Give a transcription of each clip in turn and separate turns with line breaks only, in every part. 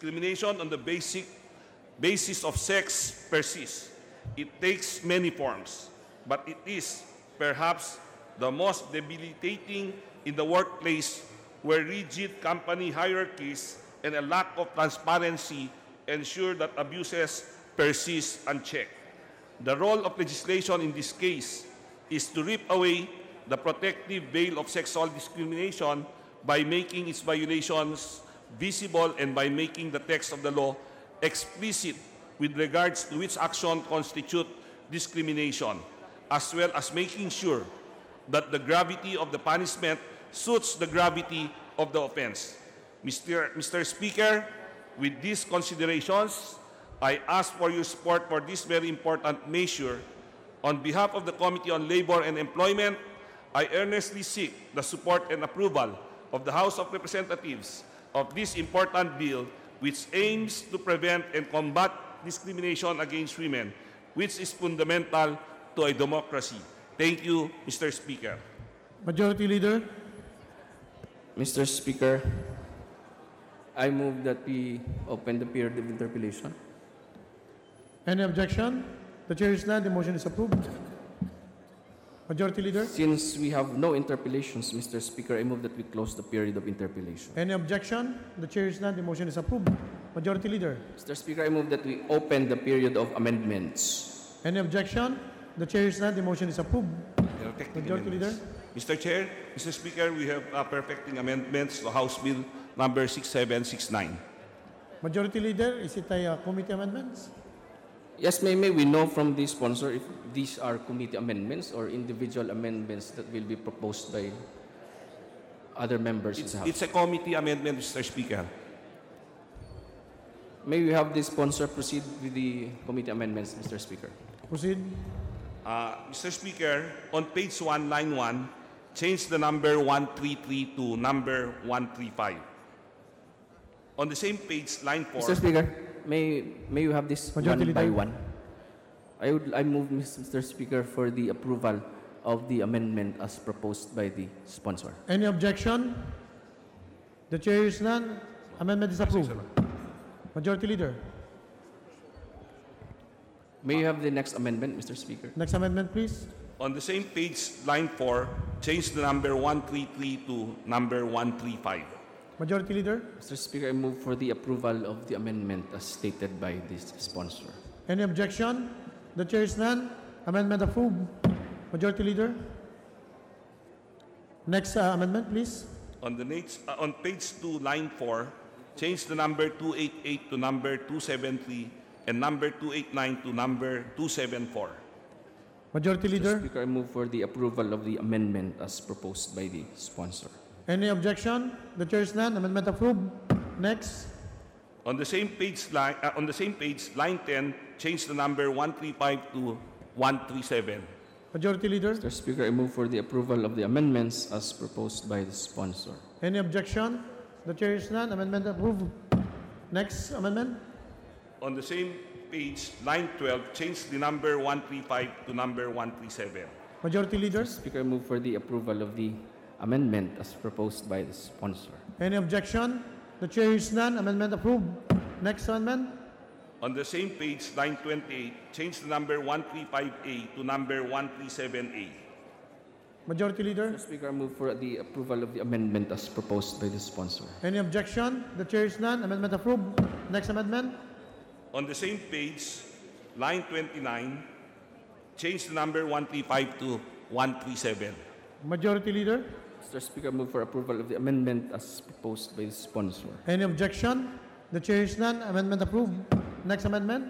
Discrimination on the basic basis of sex persists. It takes many forms, but it is perhaps the most debilitating in the workplace where rigid company hierarchies and a lack of transparency ensure that abuses persist unchecked. The role of legislation in this case is to rip away the protective veil of sexual discrimination by making its violations visible and by making the text of the law explicit with regards to which action constitute discrimination, as well as making sure that the gravity of the punishment suits the gravity of the offense. Mr. Mr. Speaker, with these considerations, I ask for your support for this very important measure. On behalf of the Committee on Labor and Employment, I earnestly seek the support and approval of the House of Representatives of this important bill which aims to prevent and combat discrimination against women, which is fundamental to a democracy. Thank you, Mr. Speaker.
Majority Leader,
Mr. Speaker, I move that we open the period of interpellation.
any objection? The chair is none, the motion is approved. Majority Leader,
Since we have no interpellations, Mr. Speaker, I move that we close the period of interpellation.
any objection? The chair is none, the motion is approved. Majority Leader,
Mr. Speaker, I move that we open the period of amendments.
any objection? The chair is none, the motion is approved.
There are technical
Majority
amendments. Mr. Chair, Mr. Speaker, we have uh, perfecting amendments to House Bill number 6769.
Majority Leader, is it a uh, committee amendments?
Yes, may, may we know from the sponsor if these are committee amendments or individual amendments that will be proposed by other members of
It's,
the House.
it's a committee amendment, Mr. Speaker.
May we have the sponsor proceed with the committee amendments, Mr. Speaker.
Proceed.
Uh, Mr. Speaker, on page 1, line 1, change the number 133 to number 135. On the same page, line 4.
Mr. Speaker, may may you have this
Majority
one by
Leader.
one? I would I move Mr. Speaker for the approval of the amendment as proposed by the sponsor.
Any objection? The chair is none, amendment is approved. Majority Leader,
May you have the next amendment, Mr. Speaker?
next amendment please.
On the same page, line 4, change the number 133 to number 135.
Majority Leader,
Mr. Speaker, I move for the approval of the amendment as stated by the sponsor.
any objection? The chair is none, amendment approved. Majority Leader, next uh, amendment please.
On, the next, uh, on page 2, line 4, change the number 288 to number 273 and number 289 to number 274.
Majority
Mr.
Leader,
Speaker, I move for the approval of the amendment as proposed by the sponsor.
any objection? The chair is none, amendment approved. Next,
On the same page, line, uh, on the same page, line 10, change the number 135 to 137.
Majority Leader,
Mr. Speaker, I move for the approval of the amendments as proposed by the sponsor.
any objection? The chair is none, amendment approved. Next amendment,
On the same page, line 12, change the number 135 to number 137.
Majority Leader,
Speaker, I move for the approval of the amendment as proposed by the sponsor.
Any objection? The chair is none. Amendment approved. Next amendment.
On the same page, line 28, change the number 135A to number 137A.
Majority Leader.
Mr. Speaker, I move for the approval of the amendment as proposed by the sponsor.
Any objection? The chair is none. Amendment approved. Next amendment.
On the same page, line 29, change the number 135 to 137.
Majority Leader.
Mr. Speaker, I move for approval of the amendment as proposed by the sponsor.
Any objection? The chair is none. Amendment approved. Next amendment.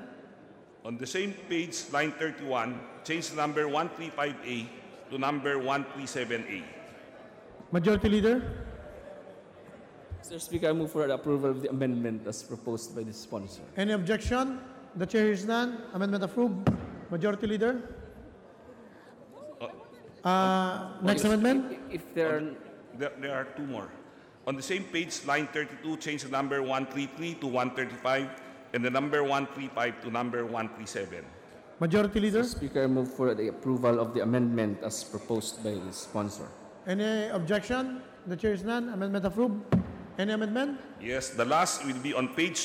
On the same page, line 31, change the number 135A to number 137A.
Majority Leader.
Mr. Speaker, I move for the approval of the amendment as proposed by the sponsor.
Any objection? The chair is none. Amendment approved. Majority Leader. Uh, next
If-
amendment.
If there are,
There, there are two more. On the same page, line 32, change the number 133 to 135 and the number 135 to number 137.
Majority Leader.
Mr. Speaker, I move for the approval of the amendment as proposed by the sponsor.
Any objection? The chair is none. Amendment approved. Any amendment?
Yes, the last will be on page